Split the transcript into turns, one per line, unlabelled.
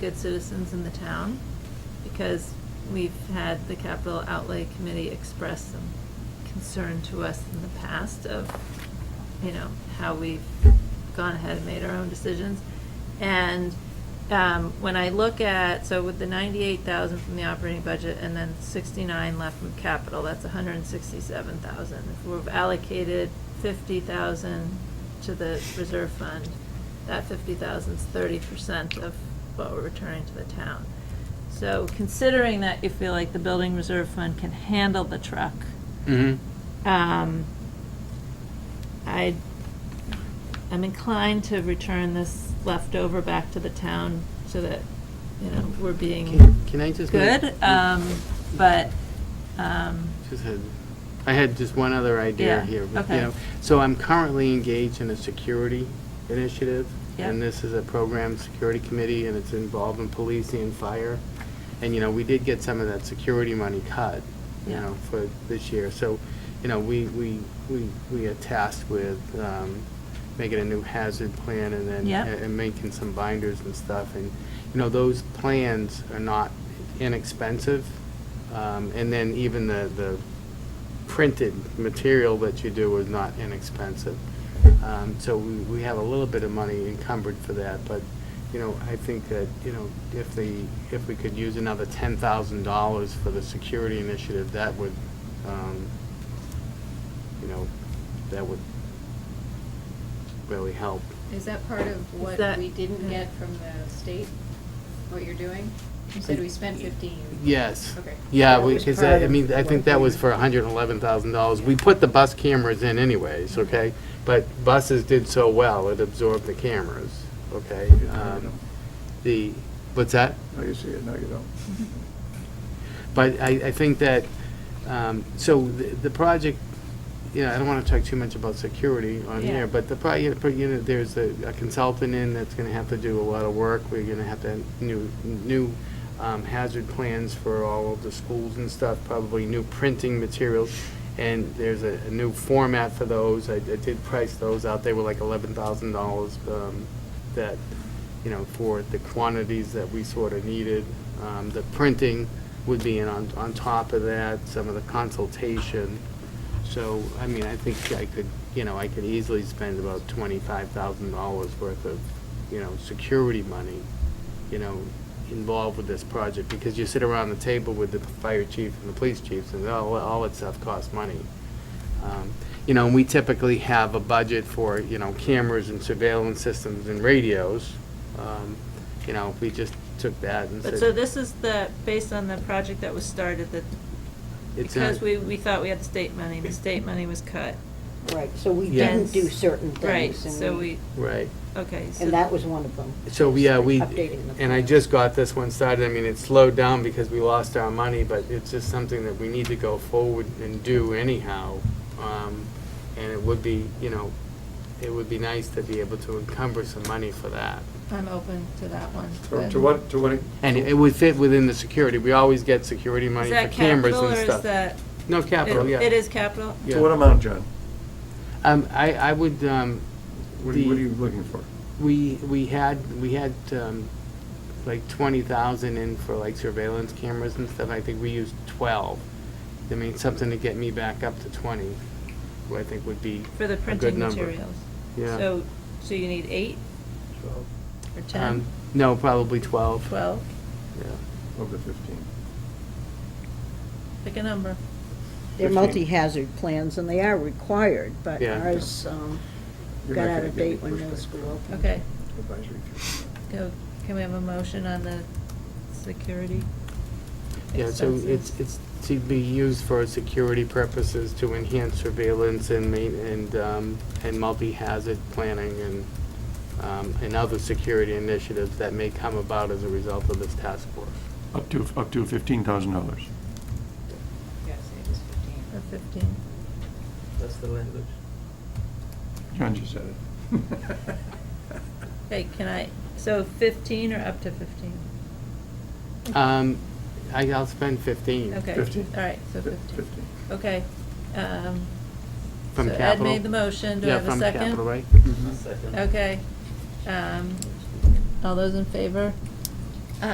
good citizens in the town, because we've had the capital outlay committee express some concern to us in the past of, you know, how we've gone ahead and made our own decisions. And um, when I look at, so with the ninety-eight thousand from the operating budget and then sixty-nine left from capital, that's hundred and sixty-seven thousand. If we've allocated fifty thousand to the reserve fund, that fifty thousand is thirty percent of what we're returning to the town. So considering that you feel like the building reserve fund can handle the truck,
Mm-hmm.
um, I, I'm inclined to return this leftover back to the town so that, you know, we're being
Can- can I just make-
good, um, but, um,
Just had, I had just one other idea
Yeah,
here. you
okay.
know. So I'm currently engaged in a security initiative. And
Yeah.
this is a program security committee, and it's involved in policing and fire. And, you know, we did get some of that security money cut, you
Yeah.
know, for this year. So, you know, we, we, we we are tasked with um, making a new hazard plan and then,
Yep.
and making some binders and stuff. And, you know, those plans are not inexpensive. Um, And then even the, the printed material that you do is not inexpensive. Um, So we, we have a little bit of money encumbered for that, but, you know, I think that, you know, if the, if we could use another ten thousand dollars for the security initiative, that would, um, you know, that would really help.
Is that part of what
that-
we didn't
yeah.
get from the state, what you're doing? You said we spent fifteen.
Yes.
Okay.
Yeah,
That was
because,
part
I
of
mean, I think that was for
what
hundred and eleven thousand dollars. We put the bus cameras in anyways,
Mm-hmm.
okay? But buses did so well, it absorbed the cameras, okay?
No, you
Um,
don't.
The, what's that?
No, you see it, no, you don't.
But I, I think that, um, so the, the project, you know, I don't want to talk too much about security on
Yeah.
here, but the, pro- you know, you know, there's a a consultant in that's going to have to do a lot of work. We're going to have to, have new, new um, hazard plans for all of the schools and stuff, probably new printing materials. And there's a, a new format for those. I, I did price those out. They were like eleven thousand dollars, um, that, you know, for the quantities that we sort of needed. Um, the printing would be in on, on top of that, some of the consultation. So, I mean, I think I could, you know, I could easily spend about twenty-five thousand dollars worth of, you know, security money, you know, involved with this project, because you sit around the table with the fire chief and the police chiefs, and all, all that stuff costs money. Um, You know, and we typically have a budget for, you know, cameras and surveillance systems and radios. Um, You know, we just took that and said.
but so this is the, based on the project that was started, that,
it's
because
not-
we, we thought we had the state money, the state money was cut.
Right, so we
Yeah.
didn't do certain things.
Right,
and
so we,
Right.
okay, so.
And that was one of them.
So, we- yeah, we,
Updating the
and I
plan.
just got this one started, I mean, it slowed down because we lost our money, but it's just something that we need to go forward and do anyhow. Um, And it would be, you know, it would be nice to be able to encumber some money for that.
I'm open to that one.
To-
but-
To what, to what,
And it would fit within the security, we always get security money
Is
for
that
cameras
capital
and
or
stuff.
is that?
No, capital,
it-
yeah.
It is capital?
Yeah.
to what amount, John?
Um, I, I would, um,
What are you, what are
The-
you looking for?
We, we had, we had, um, like twenty thousand in for like surveillance cameras and stuff, I think we used twelve. I mean, something to get me back up to twenty, who I think would be
For the
a good
printing
number.
materials?
Yeah.
So, so you need eight or
Um,
ten,
no, probably twelve.
twelve?
Yeah.
Of the fifteen.
Pick a number.
They're
Fifteen.
multi-hazard plans, and they are required, but
Yeah.
ours um,
You're
got
not
out
gonna
of
get any
date when middle
pushback.
school opened.
Okay,
Advisory committee.
go, can we have a motion on the security?
Yeah, so
expenses?
it's, it's to be used for security purposes to enhance surveillance and main, and, um, and multi-hazard planning and, um, and other security initiatives that may come about as a result of this task force.
Up to, up to fifteen thousand dollars.
Yes, it was fifteen.
Or fifteen.
That's the language.
John just said it.
Okay, can I, so fifteen or up to fifteen?
Um, I, I'll spend fifteen.
Okay.
15.
All right, so
Fif-
fifteen.
Fifteen.
Okay. um,
From
so
capital.
Ed made the motion, do I
Yeah,
have a second?
Mm-hmm.
from capital, right?
Okay. Um, All those in favor?